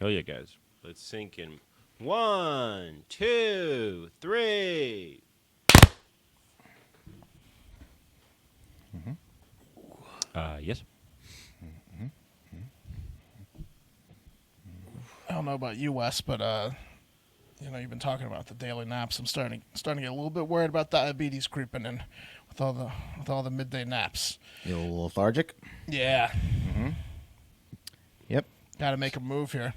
Hell yeah, guys. Let's sink in. One, two, three. Mm-hmm. Uh, yes. I don't know about you, Wes, but uh, you know you've been talking about the daily naps. I'm starting starting to get a little bit worried about diabetes creeping in with all the with all the midday naps. You a little lethargic? Yeah, Yep. got to make a move here.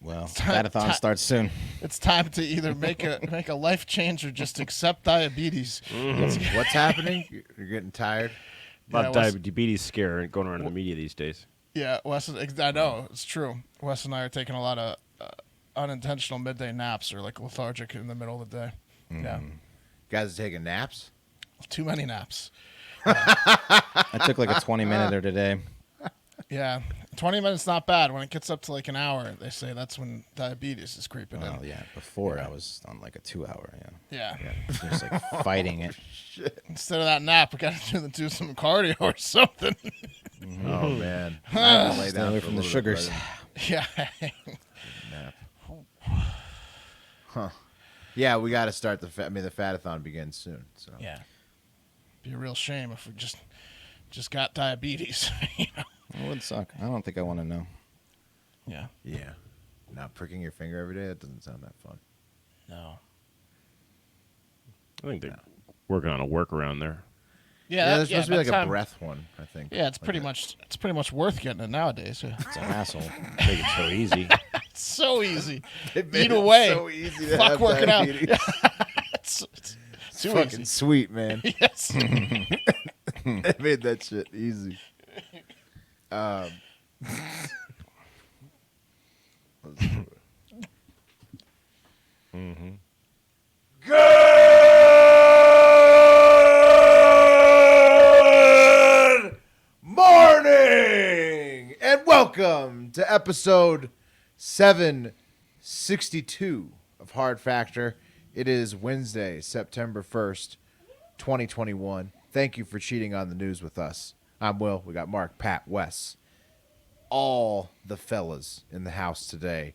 Well, Time- marathon ti- starts soon. It's time to either make a make a life change or just accept diabetes. What's happening? You're- You're getting tired. A lot of Yeah, what's- diabetes scare going around in the media these days. Yeah, Wes. Is, I know it's true. Wes and I are taking a lot of uh, unintentional midday naps or like lethargic in the middle of the day. Yeah, guys are taking naps. too many naps. I took like a 20 minute or today. Yeah, twenty minutes not bad. When it gets up to like an hour, they say that's when diabetes is creeping Well, Oh. in. yeah. Before I was on like a two hour. Yeah. Yeah. Just like fighting it. Instead of that nap, we got to do, do some cardio or something. Oh man, I had to lay Mm-hmm. Stay away for a from little the bit, sugars. but- yeah. nap. Huh. Yeah, we got to start the. Fa- I mean, the fatathon begins soon. So Yeah. Be a real shame if we just just got diabetes. you know? It would suck. I don't think I want to know. Yeah. yeah, not pricking your finger every day. That doesn't sound that fun. No. I think they're working on a workaround there. Yeah. Yeah, that- there's yeah, supposed to be by like the a time- breath one. I think. Yeah, it's Like pretty a- much it's pretty much worth getting it nowadays. Yeah. It's an asshole. Make it so easy. It's so easy. They made Eat it away. so e- easy to Fuck have working out. diabetes. It's, it's It's too fucking easy. sweet, man. Yes. they made that shit easy. Um, Good morning and welcome to episode 762 of Hard Factor. It is Wednesday, September 1st, 2021. Thank you for cheating on the news with us. I'm Will. We got Mark, Pat, Wes, all the fellas in the house today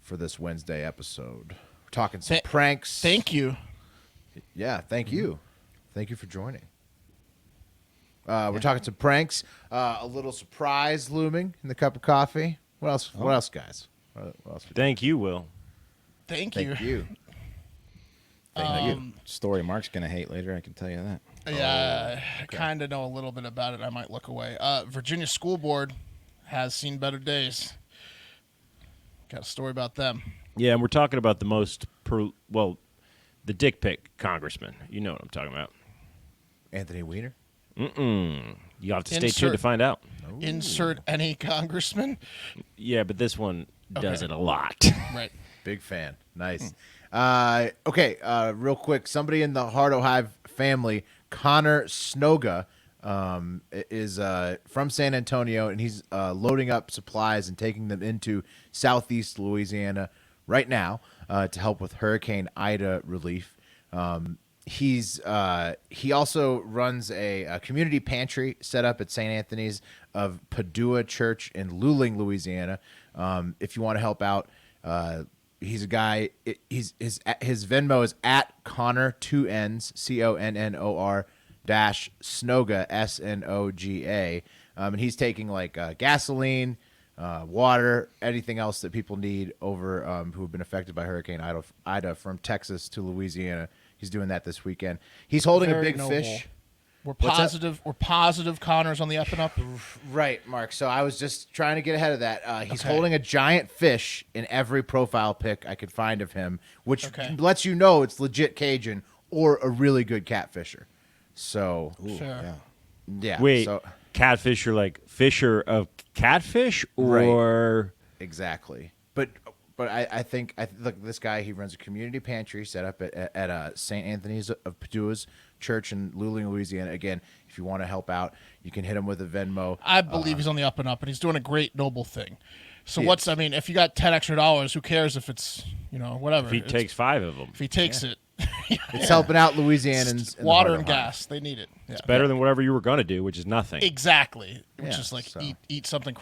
for this Wednesday episode. We're talking some Th- pranks. Thank you. Yeah, thank you. Thank you for joining. Uh, we're talking some pranks, uh, a little surprise looming in the cup of coffee. What else? What else, guys? What what else? Thank you, Will. Thank, Thank you. Thank you. Story Mark's gonna hate later. I can tell you that. Oh, Yeah, I kind of know a little bit about it. I might look away. Uh, Virginia School Board has seen better days. Got a story about them. Yeah, and we're talking about the most pro- well, the dick pic congressman. You know what I'm talking about. Anthony Weiner. You have to stay tuned Insert- to find out. Insert any congressman. Yeah, but this one does Okay. it a lot. Right. Big fan. Nice. Uh, okay, uh, real quick. Somebody in the Hard Hive family, Connor Snoga, um, i- is uh, from San Antonio, and he's uh, loading up supplies and taking them into Southeast Louisiana right now uh, to help with Hurricane Ida relief. Um, he's uh, he also runs a, a community pantry set up at St. Anthony's of Padua Church in Luling, Louisiana. Um, if you want to help out, uh, he's a guy. it- He's his his Venmo is at Connor two N's C O N N O R dash Snoga S N O G A, um, and he's taking like uh, gasoline uh, water, anything else that people need over um, who have been affected by Hurricane Ida, Ida from Texas to Louisiana. He's doing that this weekend. He's holding Very a big noble. fish. We're What's that? positive. We're positive. Connor's on the up and up. Right, Mark. So I was just trying to get ahead of that. Uh, he's Okay. holding a giant fish in every profile pic I could find of him, which Okay. lets you know it's legit Cajun or a really good catfisher. So Sure. Yeah. yeah, Wait, so, catfish are like Fisher of catfish or Exactly. But but I, I think I look this guy he runs a community pantry set up at at, at uh, St. Anthony's of Padua's church in Luling, Louisiana. Again, if you want to help out, you can hit him with a Venmo. I believe he's on the up and up, and he's doing a great noble thing. So Uh-huh. He what's? is. I mean, if you got ten extra dollars, who cares if it's you know whatever? if he It's- takes five of them. if he takes it, It's helping out Louisianans. in the water heart and of Ohio. gas, they need it. Yeah. Better than whatever you were gonna do, which is nothing. Exactly. Which Yeah, is like so- eat eat something